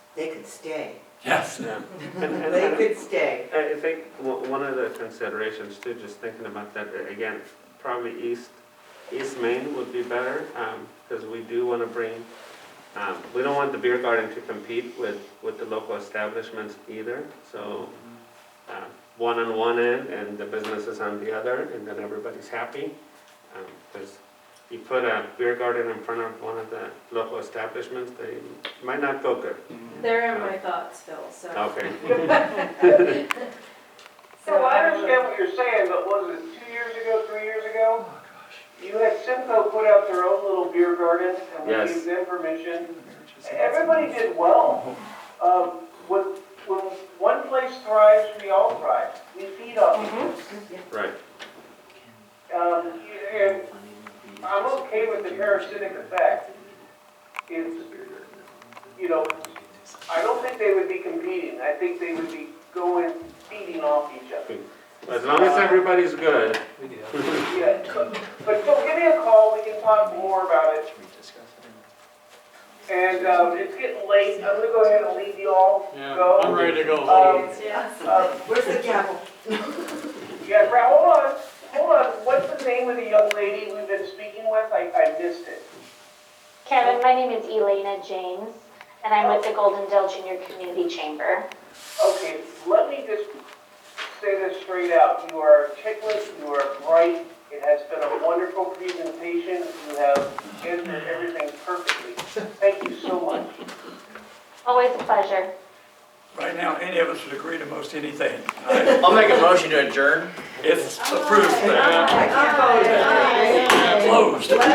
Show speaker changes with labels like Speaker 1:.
Speaker 1: They could stay.
Speaker 2: Yes.
Speaker 3: Yeah. And- and-
Speaker 1: They could stay.
Speaker 3: I I think o- one of the considerations too, just thinking about that, uh, again, probably East, East Main would be better, because we do want to bring, um, we don't want the beer garden to compete with, with the local establishments either, so um, one on one end and the businesses on the other, and then everybody's happy. Because you put a beer garden in front of one of the local establishments, they might not go good.
Speaker 4: They're in my thoughts, Phil, so.
Speaker 3: Okay.
Speaker 5: So I understand what you're saying, but was it two years ago, three years ago? You had Simcoe put out their own little beer garden, and we
Speaker 3: Yes.
Speaker 5: gave them permission. Everybody did well. Um, when, when one place thrives, we all thrive. We feed off each other.
Speaker 3: Right.
Speaker 5: Um, and I'm okay with the parasitic effect. It's, you know, I don't think they would be competing. I think they would be going, feeding off each other.
Speaker 3: As long as everybody's good,
Speaker 5: Yeah, but, but so give me a call, we can talk more about it. And, um, it's getting late, I'm gonna go ahead and leave you all.
Speaker 6: Yeah, I'm ready to go home.
Speaker 5: Um,
Speaker 4: Yeah.
Speaker 5: um,
Speaker 1: Where's the gavel?
Speaker 5: yeah, Brad, hold on, hold on, what's the name of the young lady we've been speaking with? I, I missed it.
Speaker 7: Kevin, my name is Elena James, and I'm with the Golden Dale Junior Community Chamber.
Speaker 5: Okay, let me just say this straight out. You are articulate, you are bright, it has been a wonderful presentation, you have answered everything perfectly. Thank you so much.
Speaker 7: Always a pleasure.
Speaker 2: Right now, any of us would agree to most anything. I-
Speaker 6: I'll make a motion to adjourn.
Speaker 1: Ah,
Speaker 2: It's approved,
Speaker 1: I can't vote.
Speaker 2: uh, closed.